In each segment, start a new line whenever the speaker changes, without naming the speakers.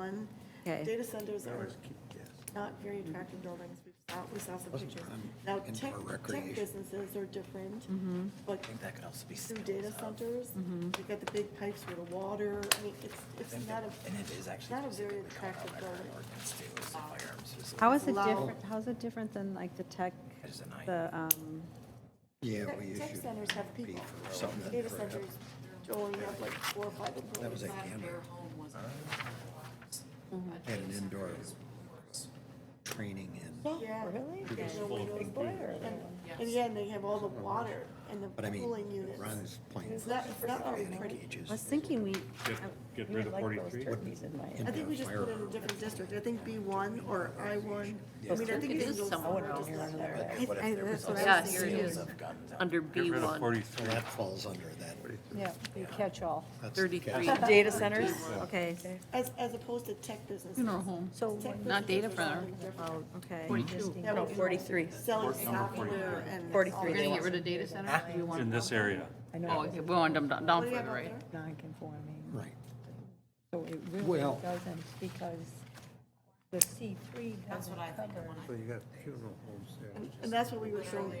done.
Okay.
Data centers are
yes.
not very attractive buildings. We saw, we saw some
Wasn't
pictures.
done
Now,
in
tech,
our
tech
recreation.
businesses are different,
Mm-hmm.
but
I think that could also be.
through data centers, you've got the big pipes for the water. I mean, it's, it's not a,
And it is actually.
not a very
specifically called out
attractive
by current
building. Uh,
Ordinance too, is the firearms facility.
How is it
Loud.
different, how's it different than like the tech,
As an
the, um,
Yeah,
tech-
we
tech
issued
centers have
B
people.
for something.
Data centers only have like four or five employees.
That was a camera, had an indoor training and,
Yeah.
Oh, really?
And the windows blare. And again, they have all the water and
but I
the
mean,
cooling units.
Ron's playing
It's not, it's not very
panic
pretty.
I was
gauges.
thinking we.
Get-
I-
get
we
rid
would
of
like those
43.
turkeys in my-
I think we just put it in a different district. I think B one or I one. I mean, I think it is somewhere.
down here under there.
What if there was
That's what
also
I
Yeah,
was
here it
thinking.
sales
is,
of guns out
under
Get rid of
B1.
43.
That falls under that.
Yeah, you catch all.
That's the
33.
catch.
Data centers? Okay,
As, as opposed to tech businesses.
so,
Tech
Not data
businesses are
center.
something
oh, okay. Interesting.
different.
Forty-three.
Selling software and.
43.
We're gonna get rid of data centers? We
It's
want-
In this area.
I know
Oh,
it
okay, we want them down down
What do you have
further,
out
right?
there?
non-conforming,
Right.
so it really
Well-
doesn't because the C three doesn't cover.
So you got funeral homes there.
And- And that's what we were showing.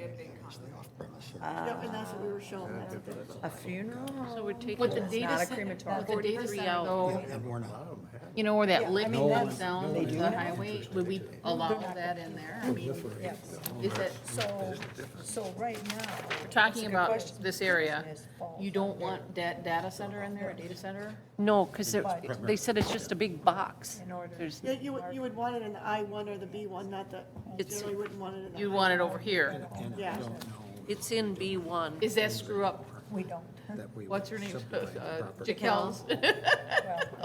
Off-premise or
Yep, and that's what we were showing. That's what they-
A funeral?
So we're taking,
With the data center,
with the data center though,
And we're not.
you know, where that
I
lift
mean,
goes
that's-
down
they
to
do
the
that.
highway, would we allow that in there? I mean,
Yes,
is it,
so, so right now.
we're talking about
question.
this area,
Question is falls
you don't want that data center in there, a data center?
No, because they said it's just a big box.
In order-
There's-
Yeah, you would, you would want it in the I one or the B one, not the, you
It's-
generally wouldn't want it in the.
You want it over here.
Um,
Yeah.
It's in B1.
Is that screw up,
We don't,
that we
what's her name,
subdivide the
Uh,
property.
Jaquel's?
well,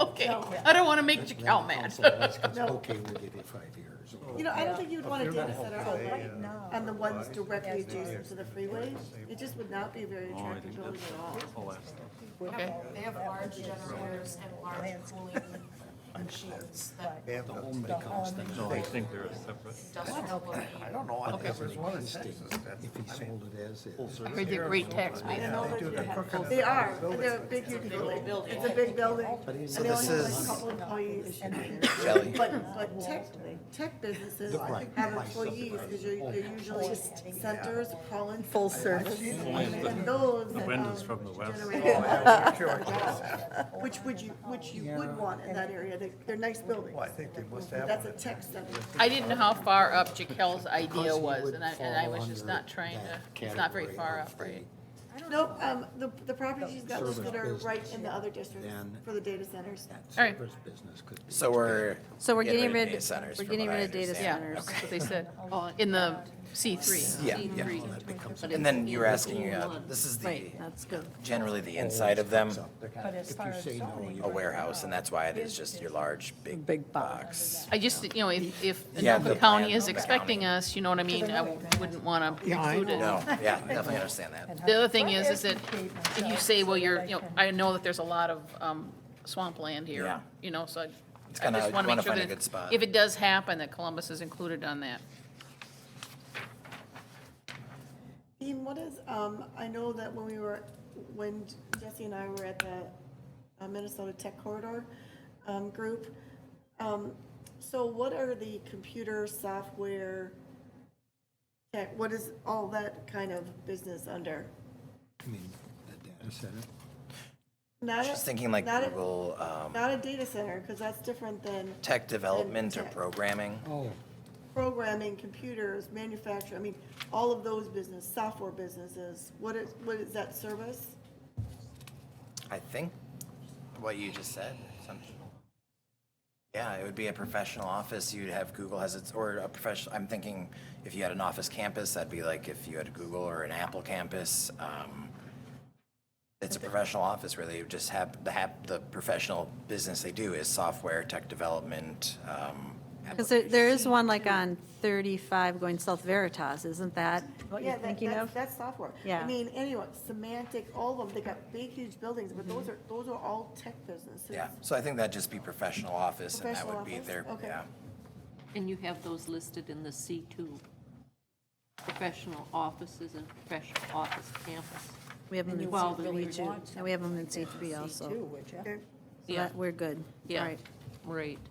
Okay, I don't want to make
Then the
Jaquel mad.
council asks us, Okay, we'll give you five years.
Oh,
You know, I don't think you'd want a data center
right
on,
now.
on the ones directly adjacent to the freeway. It just would not be a very
Oh, I
attractive
think
building
that's
at all.
the last stuff.
Okay.
They have large generators and large cooling machines that
The home becomes the
No, I think they're separate.
industrial will need.
I don't know. I think
as an
there's one in
existing,
Texas that's-
if he sold it as is.
I heard they're great tax base.
They are, they're a big, huge building. It's a big building. And they only have like a couple employees. But, but tech, tech businesses have employees because you're, they're usually centers, pollen. Full service. And those that,
windows
um,
from the west.
Oh,
generate- Which would you, which you would want in that area. They, they're nice buildings.
I think they must have.
That's a tech center.
I didn't know how far up Jaquel's
Because
idea
he
was,
would
and I, and I
fall
was just
under
not trying to,
that
it's not very
category
far
of
up, right?
Nope, um, the, the properties she's got listed are
Service
right in the other districts
Then-
for the data centers.
That
All right.
service business could be.
So we're.
So we're getting rid,
of data centers
we're
from
getting
what I
rid of data
understand.
centers.
That's what they said, in the C three.
Yeah, yeah. And then you were asking, uh, this is the,
Right, that's good.
generally the inside of them,
But as far as zoning.
a warehouse, and that's why it is just your large, big
Big
box.
I just, you know, if, if
Yeah, the
Anoka County
plan,
is
Anoka
excluding
County.
us, you know what I mean, I wouldn't want to include it.
No, yeah, definitely understand that.
The other thing is, is that if you say, well, you're, you know, I know that there's a lot of um, swampland here,
Yeah.
you know, so I
It's
I
kinda-
just
you
want to
wanna
make sure
find a
that
good spot.
if it does happen, that Columbus is included on that.
Dean, what is, um, I know that when we were, when Jesse and I were at the uh, Minnesota Tech Corridor, um, group, um, so what are the computer software tech, what is all that kind of business under?
I mean, the data center.
Not a-
Just thinking like
not a-
Google, um,
Not a data center, because that's different than
tech development or
tech.
programming.
Oh,
programming, computers, manufacturing, I mean, all of those business, software businesses, what is, what is that service?
I think what you just said, something. Yeah, it would be a professional office. You'd have Google has its, or a professional, I'm thinking if you had an office campus, that'd be like if you had Google or an Apple campus. um, It's a professional office where they just have, the, hap- the professional business they do is software, tech development. um,
Because there, there is one like on 35 going South Veritas, isn't that what
Yeah,
you're
that-
thinking
that's-
of?
That's software. I
Yeah.
mean, anyway, semantic, all of them, they got big, huge buildings, but those are, those are all tech businesses.
Yeah, so I think that'd just be professional office and that
Professional
would be
office,
their,
okay.
yeah.
And you have those listed in the C2, professional offices and professional office campus.
We have them in
Well, then we
C2,
want
and we have them in C3 also.
Two, would you?
Okay.
So that, we're good.
Yeah,
Right.
right.